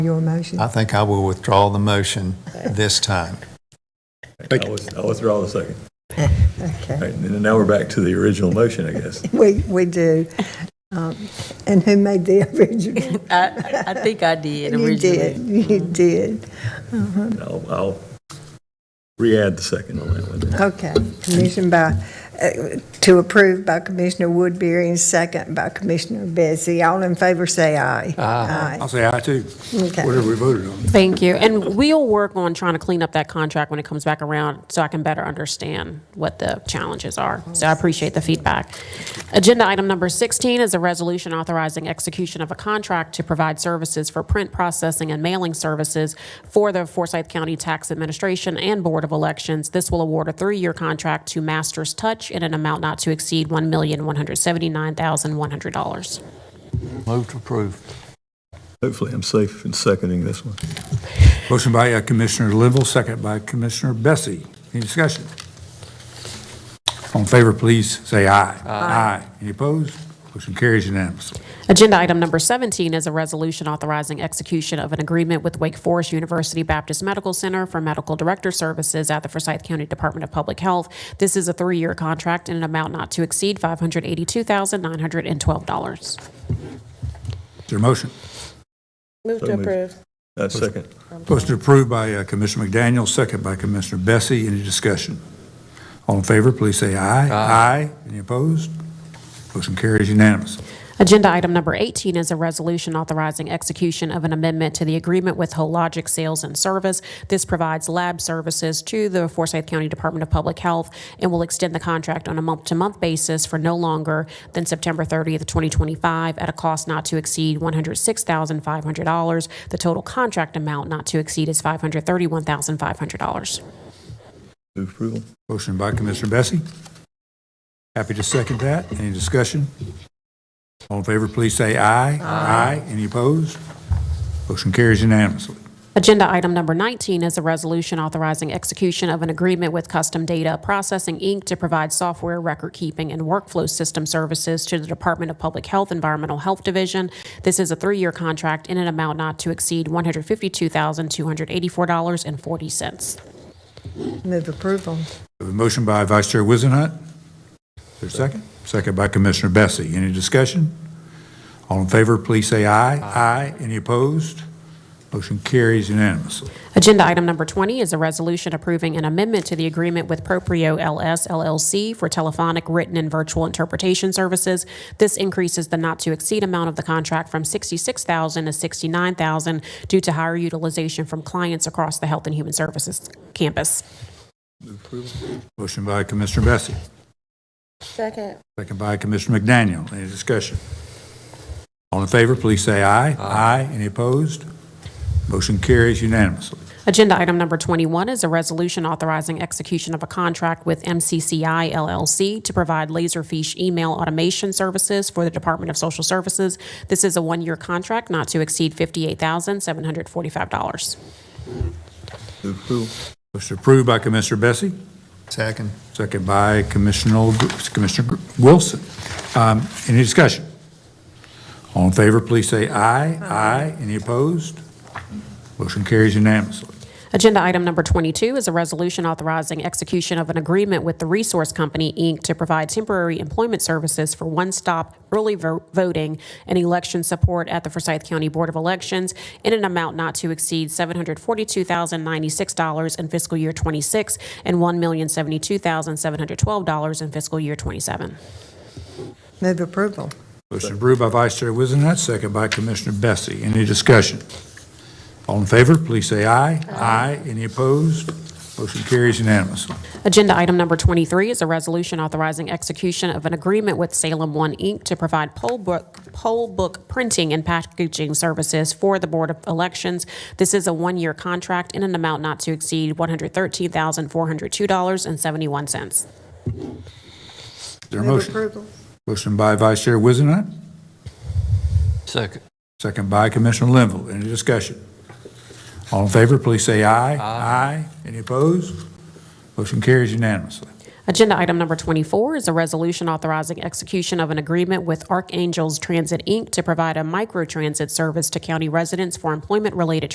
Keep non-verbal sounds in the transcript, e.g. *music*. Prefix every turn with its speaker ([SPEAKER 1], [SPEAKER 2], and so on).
[SPEAKER 1] your motion?
[SPEAKER 2] I think I will withdraw the motion this time.
[SPEAKER 3] I was, I withdraw the second. All
[SPEAKER 1] Okay,
[SPEAKER 3] right, and now we're back to the original motion, I guess.
[SPEAKER 1] *laughs* we, we do. Um, And who made the original?
[SPEAKER 4] I, I think I did
[SPEAKER 1] You did,
[SPEAKER 4] originally.
[SPEAKER 1] you did.
[SPEAKER 3] And I'll, I'll re-add the second on that one.
[SPEAKER 1] Okay, commission by, uh, to approve by Commissioner Woodbury and second by Commissioner Bessie. All in favor, say aye.
[SPEAKER 5] I'll say aye too,
[SPEAKER 1] Okay.
[SPEAKER 5] whatever we voted on.
[SPEAKER 6] Thank you. And we'll work on trying to clean up that contract when it comes back around so I can better understand what the challenges are. So I appreciate the feedback. Agenda item number 16 is a resolution authorizing execution of a contract to provide services for print processing and mailing services for the Forsyth County Tax Administration and Board of Elections. This will award a three-year contract to Masters Touch in an amount not to exceed $1,179,100.
[SPEAKER 2] Move to approve.
[SPEAKER 3] Hopefully I'm safe in seconding this one.
[SPEAKER 5] Motion by uh, Commissioner Linville, second by Commissioner Bessie. Any discussion? All in favor, please say aye. Aye. Any opposed? Motion carries unanimously.
[SPEAKER 6] Agenda item number 17 is a resolution authorizing execution of an agreement with Wake Forest University Baptist Medical Center for medical director services at the Forsyth County Department of Public Health. This is a three-year contract in an amount not to exceed $582,912.
[SPEAKER 5] Is there a motion?
[SPEAKER 4] Move
[SPEAKER 3] So moved. Uh, second.
[SPEAKER 5] Motion approved by uh, Commissioner McDaniel, second by Commissioner Bessie. Any discussion? All in favor, please say aye. Aye. Any opposed? Motion carries unanimously.
[SPEAKER 6] Agenda item number 18 is a resolution authorizing execution of an amendment to the agreement with Hologic Sales and Service. This provides lab services to the Forsyth County Department of Public Health and will extend the contract on a month-to-month basis for no longer than September 30th, 2025, at a cost not to exceed $106,500. The total contract amount not to exceed is $531,500.
[SPEAKER 3] Move approval.
[SPEAKER 5] Motion by Commissioner Bessie. Happy to second that. Any discussion? All in favor, please say aye. Aye. Any opposed? Motion carries unanimously.
[SPEAKER 6] Agenda item number 19 is a resolution authorizing execution of an agreement with Custom Data Processing, Inc. to provide software record keeping and workflow system services to the Department of Public Health Environmental Health Division. This is a three-year contract in an amount not to exceed $152,284.40.
[SPEAKER 1] Move approval.
[SPEAKER 5] We have A motion by Vice Chair Wizenhut. Is there a second? Second by Commissioner Bessie. Any discussion? All in favor, please say aye. Aye. Any opposed? Motion carries unanimously.
[SPEAKER 6] Agenda item number 20 is a resolution approving an amendment to the agreement with Proprio LS LLC for telephonic, written, and virtual interpretation services. This increases the not-to-exceed amount of the contract from 66000 to 69000 due to higher utilization from clients across the Health and Human Services campus.
[SPEAKER 5] Motion by Commissioner Bessie.
[SPEAKER 4] Second.
[SPEAKER 5] Second by Commissioner McDaniel. Any discussion? All in favor, please say aye. Aye. Any opposed? Motion carries unanimously.
[SPEAKER 6] Agenda item number 21 is a resolution authorizing execution of a contract with MCCI LLC to provide Laserfish email automation services for the Department of Social Services. This is a one-year contract not to exceed $58,745.
[SPEAKER 3] Move approval.
[SPEAKER 5] Motion approved by Commissioner Bessie,
[SPEAKER 2] Second.
[SPEAKER 5] second by Commissioner, Commissioner Wilson. Um, Any discussion? All in favor, please say aye. Aye. Any opposed? Motion carries unanimously.
[SPEAKER 6] Agenda item number 22 is a resolution authorizing execution of an agreement with the Resource Company, Inc. to provide temporary employment services for one-stop early vo- voting and election support at the Forsyth County Board of Elections in an amount not to exceed $742,096 in fiscal year '26 and $1,072,712 in fiscal year '27.
[SPEAKER 1] Move approval.
[SPEAKER 5] Motion approved by Vice Chair Wizenhut, second by Commissioner Bessie. Any discussion? All in favor, please say aye. Aye. Any opposed? Motion carries unanimously.
[SPEAKER 6] Agenda item number 23 is a resolution authorizing execution of an agreement with Salem One Inc. to provide poll book, poll book printing and packaging services for the Board of Elections. This is a one-year contract in an amount not to exceed $113,402.71.
[SPEAKER 5] Is there a
[SPEAKER 1] Move
[SPEAKER 5] motion?
[SPEAKER 1] approval.
[SPEAKER 5] Motion by Vice Chair Wizenhut,
[SPEAKER 2] Second.
[SPEAKER 5] second by Commissioner Linville. Any discussion? All in favor, please say aye. Aye. Any opposed? Motion carries unanimously.
[SPEAKER 6] Agenda item number 24 is a resolution authorizing execution of an agreement with Archangels Transit, Inc. to provide a microtransit service to county residents for employment-related